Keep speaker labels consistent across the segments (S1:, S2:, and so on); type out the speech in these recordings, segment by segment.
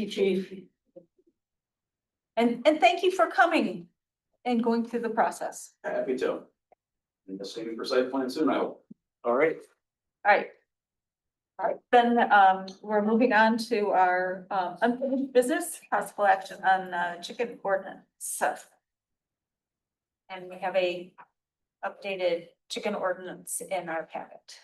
S1: you, chief.
S2: And, and thank you for coming and going through the process.
S3: Happy to. And the same for site plan soon, I hope. All right.
S2: All right. All right, then, um, we're moving on to our, um, unfinished business, possible action on, uh, chicken ordinance. And we have a updated chicken ordinance in our packet.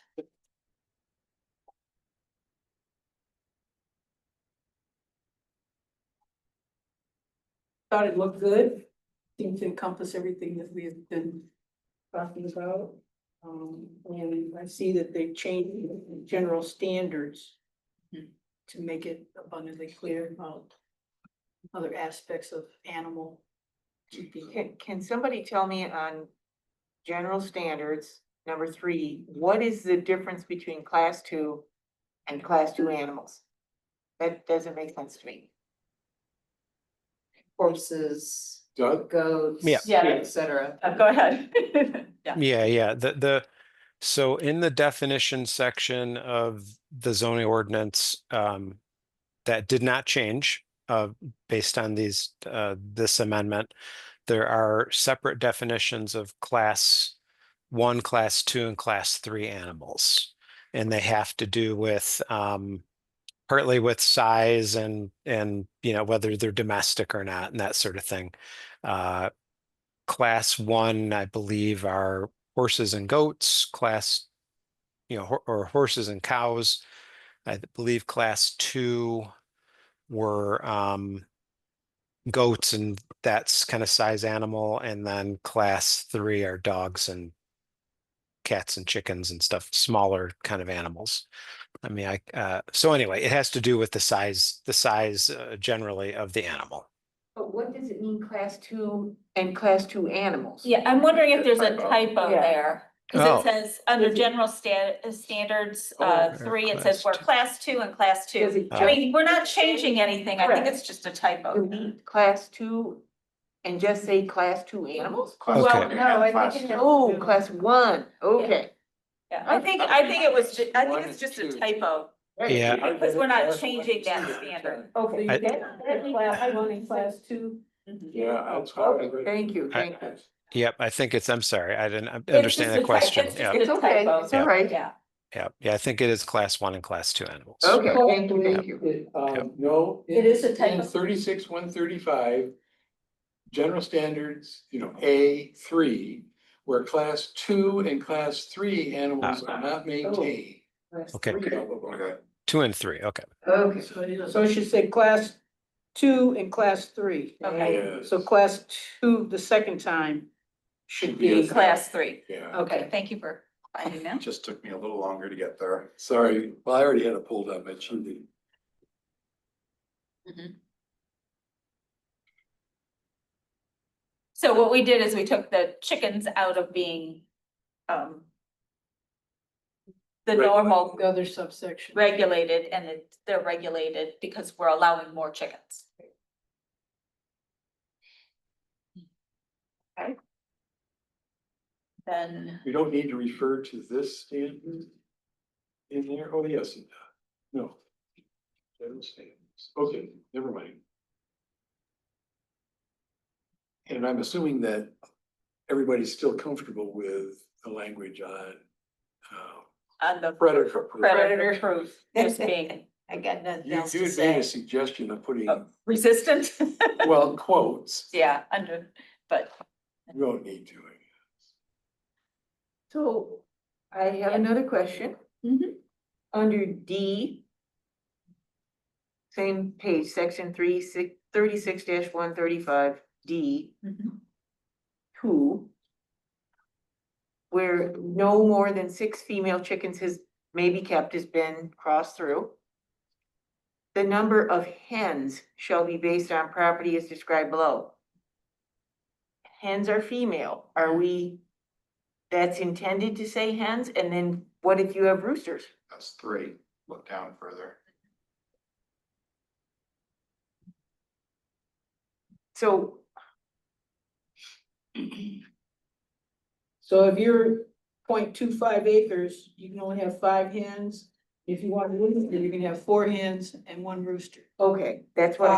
S1: Thought it looked good, seemed to encompass everything that we have been talking about. Um, and I see that they changed the general standards to make it abundantly clear about other aspects of animal keeping.
S4: Can, can somebody tell me on general standards, number three, what is the difference between class two and class two animals? That doesn't make sense to me.
S5: horses,
S3: Doug?
S5: goats,
S6: Yeah.
S2: Yeah.
S5: et cetera.
S2: Uh, Go ahead. Yeah,
S6: Yeah, yeah, the, the, so in the definition section of the zoning ordinance, um, that did not change, uh, based on these, uh, this amendment. There are separate definitions of class one, class two, and class three animals. And they have to do with, um, partly with size and, and, you know, whether they're domestic or not and that sort of thing. Uh, class one, I believe, are horses and goats, class, you know, hor- or horses and cows. I th- believe class two were um goats and that's kind of size animal, and then class three are dogs and cats and chickens and stuff, smaller kind of animals. I mean, I, uh, so anyway, it has to do with the size, the size uh, generally of the animal.
S4: But what does it mean, class two and class two animals?
S2: Yeah, I'm wondering if there's a typo
S4: Yeah.
S2: there. Cause
S6: Oh.
S2: it says, under general sta- uh, standards,
S6: Oh,
S2: uh,
S6: or
S2: three, it
S6: class
S2: says we're
S6: two.
S2: class two and class two.
S4: Does it
S6: Uh,
S2: I mean, we're not changing anything. I think
S4: Correct.
S2: it's just a typo.
S4: delete class two and just say class two animals?
S6: Okay.
S5: no, I think it-
S4: Oh, class one, okay.
S2: Yeah, I think, I think it was, ju- I think it's just a typo.
S6: Yeah.
S2: Because we're not changing that standard.
S1: Okay,
S6: I-
S1: that- class one and class two.
S2: Mm-hmm.
S3: Yeah, that's how I agree.
S4: Thank you,
S6: I-
S4: thank you.
S6: Yep, I think it's, I'm sorry, I didn't uh,
S2: just
S6: understand
S2: a
S6: the
S2: ty-
S6: question.
S2: it's just
S6: Yeah.
S2: a
S4: It's okay,
S2: typo.
S4: it's all right.
S2: Yeah.
S6: Yeah, yeah, I think it is class one and class two animals.
S4: Okay, thank you, thank you.
S6: Yep.
S7: Um, no.
S1: It is a
S7: it's
S1: type
S7: in
S1: of-
S7: Thirty-six, one thirty-five. General standards, you know, A three, where class two and class three animals are
S2: Ah.
S7: not maintained.
S6: Okay.
S2: Oh.
S7: Okay.
S6: Two and three, okay.
S4: Okay.
S1: So it- so it should say class two and class three.
S2: Okay.
S1: So class two, the second time, should be.
S2: Class three.
S7: Yeah,
S2: Okay,
S1: Okay,
S2: thank you for finding that.
S3: Just took me a little longer to get there.
S7: sorry, well, I already had it pulled up, but you did.
S2: Mm-hmm. So what we did is we took the chickens out of being, um, the normal
S1: the other subsection.
S2: regulated and it, they're regulated because we're allowing more chickens. Okay. Then,
S7: We don't need to refer to this standard in there, oh, yes, it does, no. General standards, okay, never mind. And I'm assuming that everybody's still comfortable with the language on, uh,
S2: on the
S7: predator. proof.
S2: predator proof, just being
S5: I got nothing
S7: You,
S5: else
S7: you
S5: to
S7: had made
S5: say.
S7: a suggestion of putting,
S2: Oh. resistant,
S7: well, quotes,
S2: yeah, under, but.
S7: you don't need to.
S4: So I have
S2: Yeah.
S4: another question.
S2: Mhm.
S4: Under D. Same page, section three, six, thirty-six dash one thirty-five, D,
S2: mm-hmm.
S4: two. Where no more than six female chickens has, may be kept has been crossed through. The number of hens shall be based on property as described below. Hens are female, are we? That's intended to say hens, and then what if you have roosters?
S3: That's three, look down further.
S4: So
S1: So if you're 0.25 acres, you can only have five hens If you want roosters, you can have four hens and one rooster.
S4: Okay, that's what